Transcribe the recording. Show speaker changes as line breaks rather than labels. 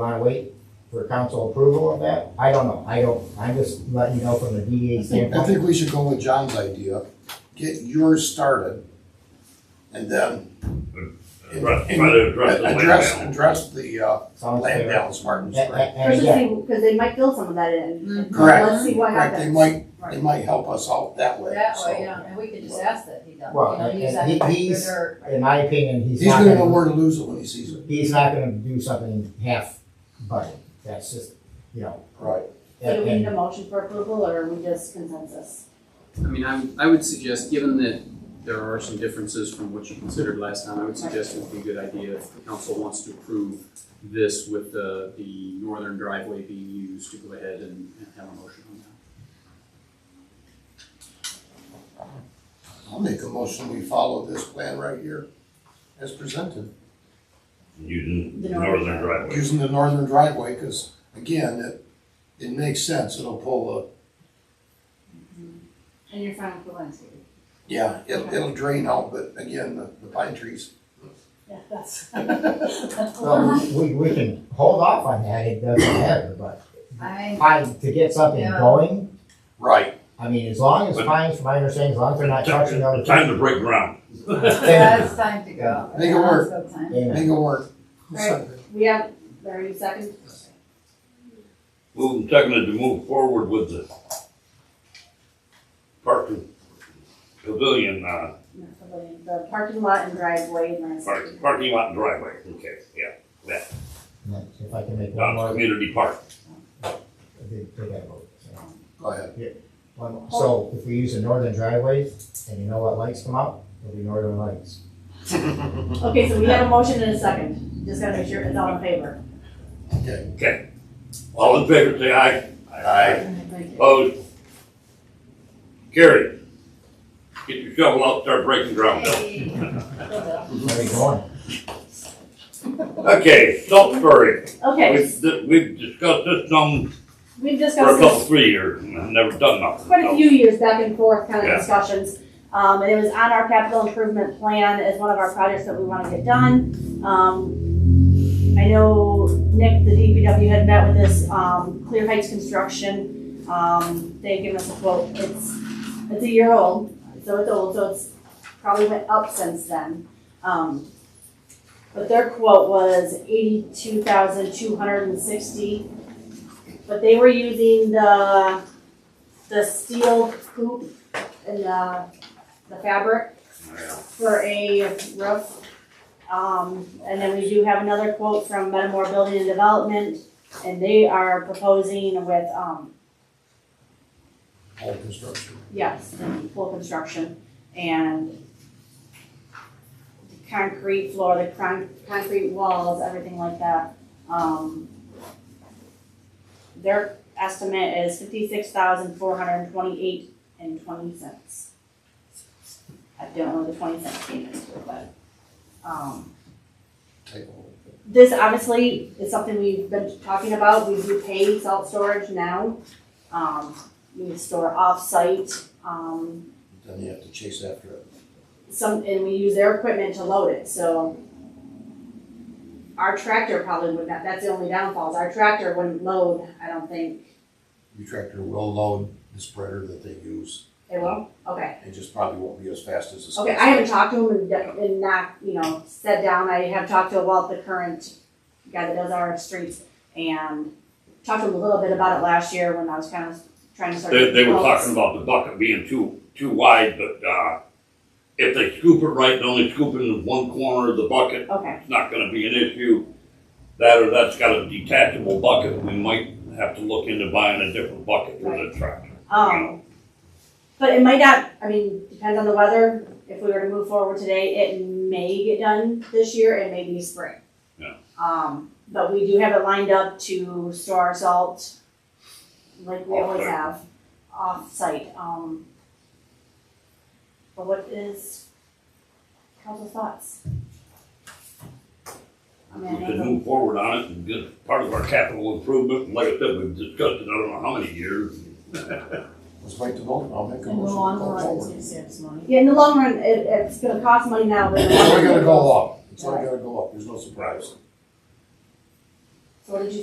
Want to wait for council approval of that? I don't know. I don't, I'm just letting you know from the DDA
I
standpoint.
think we should go with John's idea, get yours started, and then.
Right, try to address the land
Address,
balance.
address the, uh,
Sounds
land
fair.
balance, Martin.
And-
Correct,
and-
Or
and
just
again,
see, because they might build some of that in.
Mhm.
Correct.
Let's see what
they
happens.
might, they
Right,
might help us out that way,
that
so.
way, yeah, and we could just ask that he does, you
Well,
know,
and-
use
and
that
he-
for
he's-
dirt.
in my opinion, he's
He's
not
gonna know
gonna,
where to lose it when he sees it.
he's not gonna do something half budget. That's just, you know.
Right.
So do we
and-
need a motion for approval or are we just consensus?
I mean, I, I would suggest, given that there are some differences from what you considered last time, I would suggest it would be a good idea if the council wants to approve this with the, the northern driveway being used to go ahead and, and have a motion on that.
I'll make a motion, we follow this plan right here as presented,
using
The
the
northern
northern driveway.
using the northern driveway, cause again, it, it makes sense, it'll pull
And you're fine with the landscape?
the, yeah, it'll, it'll drain out, but again, the, the pine trees.
Yeah, that's.
Um,
Well, we, we can hold off on that. It doesn't matter, but
I,
I, to get something
Yeah.
going,
Right,
I mean, as long as
But-
fines, from my understanding, as long as they're not touching other.
It's Time to break ground.
Then-
that's time to go.
Make it work.
That's time.
Amen.
make it work.
Right. We have, are you second?
Moving, seconded to move forward with the parking pavilion, uh,
Not pavilion, The parking lot and driveway and landscape.
park- parking lot and driveway, okay, yeah.
If I can make one
Down
more,
community park.
I did take that vote. so.
Go ahead.
One more. So if we use the northern driveways and you know what lights come out, it'll be northern lights.
Okay, so we have a motion and a second. Just gotta make sure it's all in favor.
Okay,
All in favor, say aye.
Aye.
Thank you.
Opposed? Carried. Get your shovel out, start breaking ground.
Hey. Go,
Where are you going?
Okay, Salisbury.
Okay,
We've, we've discussed this some
we've
for a
discussed
couple,
this
three years, and I've never done nothing.
quite a few years back and forth kind
Yeah.
of discussions. Um, and it was on our capital improvement plan as one of our projects that we want to get done. Um, I know Nick, the DPW had met with this, um, Clear Heights Construction. Um, they gave us a quote. It's, it's a year old, so it's old, so it's probably went up since then. Um, but their quote was eighty-two thousand two hundred and sixty. But they were using the the steel hoop and the, the fabric for a roof. Um, and then we do have another quote from Metamore Building and Development, and they are proposing with, um,
all construction.
yes, full construction and the concrete floor, the con- concrete walls, everything like that. Um, their estimate is fifty-six thousand four hundred and twenty-eight and twenty cents. I don't know the twenty cents came into it, but, um,
Take a look.
this obviously is something we've been talking about, we do pay salt storage now. Um, we store off-site, um,
Then you have to chase after it.
some, and we use their equipment to load it, so. Our tractor probably would not, that's the only downfall, is our tractor wouldn't load, I don't think,
Your tractor will load the spreader that they use.
it will, okay.
It just probably won't be as fast as the.
Okay, I haven't talked to him and, and not, you know, sat down, I have talked to Walt, the current guy that does our streets, and talked to him a little bit about it last year when I was kind of trying to start.
They, they were talking about the bucket being too, too wide, but, uh, if they scoop it right, and only scoop it in one corner of the bucket,
Okay,
it's not gonna be an issue. That or that's got a detachable bucket, we might have to look into buying a different bucket for the tractor.
um, but it might not, I mean, depends on the weather, if we were to move forward today, it may get done this year, it may be spring.
Yeah.
Um, but we do have it lined up to store our salt, like we always
Off-site.
have, off-site, um. But what is council's thoughts? I
We
mean, I
can
know
move forward on it and get part of our capital improvement, like I said, we've discussed it, I don't know how many years.
Let's wait to vote, I'll make a
in the
motion. to
long
go
run, it's
forward.
gonna save us money.
the- yeah, in the long run, it, it's gonna cost money now, but.
It's only gonna go up, it's only gonna go up, there's no surprise.
So what did you